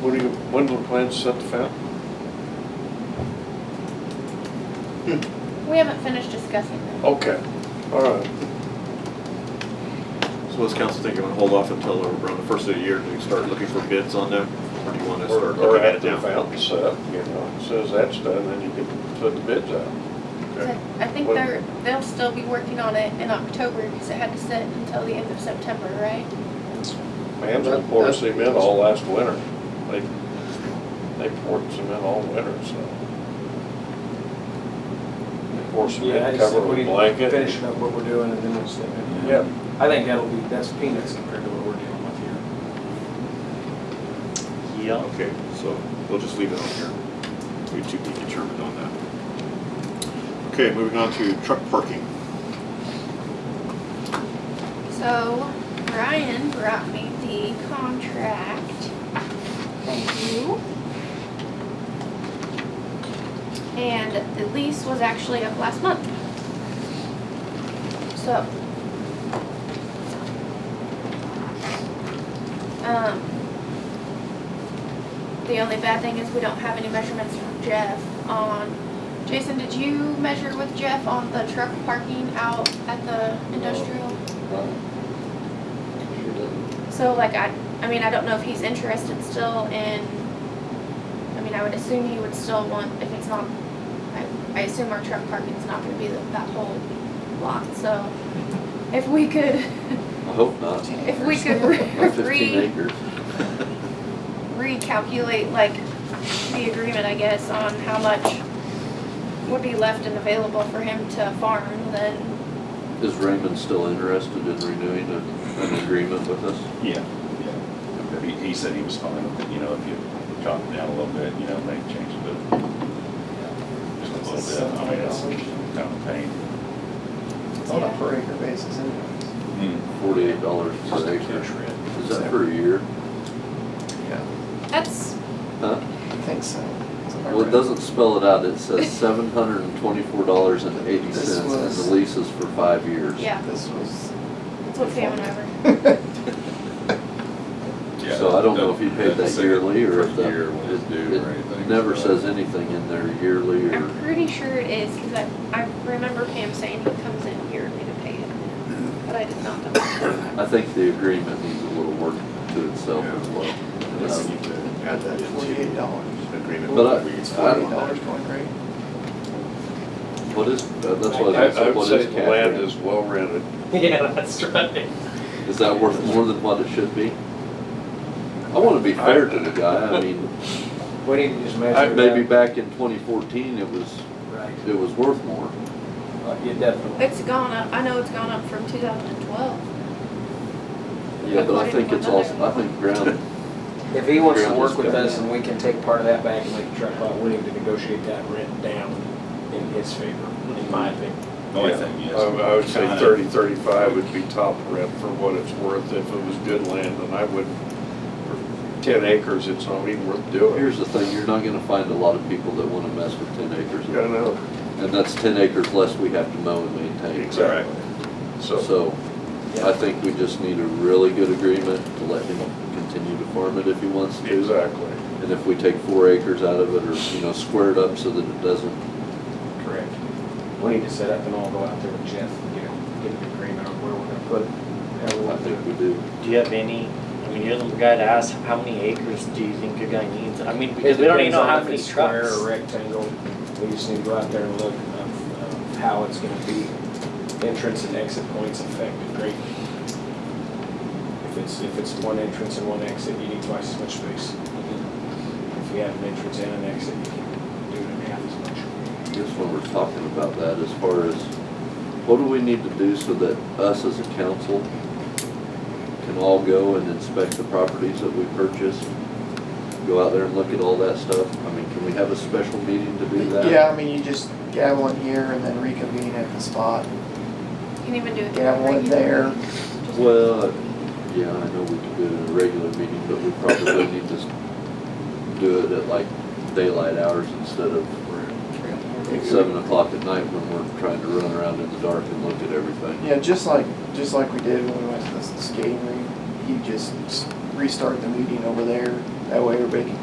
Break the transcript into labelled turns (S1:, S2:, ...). S1: What do you, when do the plans set the fountain?
S2: We haven't finished discussing that.
S1: Okay, all right.
S3: So what's council thinking, want to hold off until around the first of the year to start looking for bids on that? Or do you want to
S1: Or
S3: start
S1: or
S3: looking at it
S1: after the
S3: now?
S1: fountain's set, you know, it says that's done, then you can put the bids out.
S3: Okay.
S2: I think
S1: Well-
S2: they're, they'll still be working on it in October because it had to sit until the end of September, right?
S1: Ma'am, they poured cement all last winter. They, they poured cement all winter, so. They poured
S4: Yeah, I
S1: cement,
S4: just
S1: cover
S4: think we
S1: with
S4: need to
S1: blanket.
S4: finish up what we're doing and then we'll see.
S1: Yeah,
S4: I think that'll be, that's peanuts compared to what we're dealing with here.
S3: Yeah. Okay, so we'll just leave it on here. We to be determined on that. Okay, moving on to truck parking.
S2: So Brian brought me the contract. Thank you. And the lease was actually up last month. So. Um. The only bad thing is we don't have any measurements from Jeff on, Jason, did you measure with Jeff on the truck parking out at the industrial? So like I, I mean, I don't know if he's interested still in, I mean, I would assume he would still want, if it's not, I, I assume our truck parking's not gonna be the- that whole lot, so if we could,
S5: I hope not.
S2: if we could
S5: Not fifteen
S2: re,
S5: acres.
S2: recalculate like the agreement, I guess, on how much would be left and available for him to farm, then,
S5: Is Raymond still interested in renewing a- an agreement with us?
S6: Yeah, yeah. He, he said he was fine with it, you know, if you drop it down a little bit, you know, maybe change it, but just a little bit, I mean, it's kind of a pain.
S7: It's on a per acre basis anyways.
S6: Hmm.
S5: Forty-eight dollars per acre. Is that per year?
S2: that's,
S5: Huh?
S7: I think so. It's on a
S5: Well, it
S7: per-
S5: doesn't spell it out. It says seven hundred and twenty-four dollars and eighty
S7: This
S5: cents, and
S7: was-
S5: the lease is for five years.
S2: yeah,
S7: This was.
S2: that's what Sam and I were.
S6: Yeah,
S5: So I don't know if he paid that
S6: doesn't say
S5: yearly or
S6: per
S5: if that.
S6: year what it's
S5: it-
S6: due or
S5: it
S6: anything,
S5: Never
S6: so-
S5: says anything in there yearly or,
S2: I'm pretty sure it is, because I, I remember Pam saying he comes in yearly to pay it, but I did not double check.
S5: I think the agreement needs a little work to itself as well. Um,
S6: Unless you do it
S7: Got that forty-eight dollars.
S6: Agreement.
S5: But I-
S7: It's
S5: I
S7: forty-eight
S5: don't-
S7: dollars going rate.
S5: What is, uh, that's
S1: I
S5: what I
S1: I
S5: was gonna say,
S1: would
S5: what
S1: say
S5: is
S1: the
S5: cap
S1: land
S5: rate?
S1: is well rented.
S4: Yeah, that's right.
S5: Is that worth more than what it should be? I wanna be fair to the guy, I mean,
S4: We need to just
S5: I-
S4: measure
S5: maybe
S4: that.
S5: back in twenty fourteen, it was,
S4: Right.
S5: it was worth more.
S4: Uh, Yeah, definitely.
S2: It's gone up, I know it's gone up from two thousand and twelve.
S5: Yeah, but I think it's also, I think ground,
S4: If he wants to
S5: Ground
S4: work
S5: is
S4: with
S5: good.
S4: us and we can take part of that back and make the truck lot, we need to negotiate that rent down in his favor, in my opinion.
S6: The only thing is.
S5: Oh,
S1: I I would say
S6: kinda-
S1: thirty, thirty-five would be top rent for what it's worth if it was good land, and I wouldn't, for ten acres, it's not even worth doing.
S5: here's the thing, you're not gonna find a lot of people that wanna mess with ten acres.
S1: I know,
S5: And that's ten acres less we have to mow and maintain.
S1: exactly. So,
S5: So I think we just need a really good agreement to let him continue to farm it if he wants to.
S1: exactly.
S5: And if we take four acres out of it or, you know, square it up so that it doesn't,
S4: Correct. We need to set up and all go out there with Jeff, you know, get an agreement on where we're gonna put it. how we
S5: I
S4: want to do
S5: think
S4: it.
S5: we do.
S8: Do you have any, I mean, you're the guy to ask, how many acres do you think your guy needs? I mean, because we don't even know how many
S4: It depends on if it's
S8: trucks.
S4: Square or rectangle, we just need to go out there and look of of how it's gonna be. Entrance and exit points affected greatly. If it's, if it's one entrance and one exit, you need twice as much space. If you have an entrance and an exit, you can do it in half as much.
S5: Just when we're talking about that, as far as, what do we need to do so that us as a council can all go and inspect the properties that we purchased? Go out there and look at all that stuff? I mean, can we have a special meeting to do that?
S7: Yeah, I mean, you just have one here and then reconvene at the spot.
S2: You can even do it.
S7: Yeah, one there.
S5: Well, uh, yeah, I know we could do it in a regular meeting, but we probably need to do it at like daylight hours instead of seven o'clock at night when we're trying to run around in the dark and look at everything.
S7: Yeah, just like, just like we did when we went to the skating rink, you just s- restart the meeting over there That way everybody can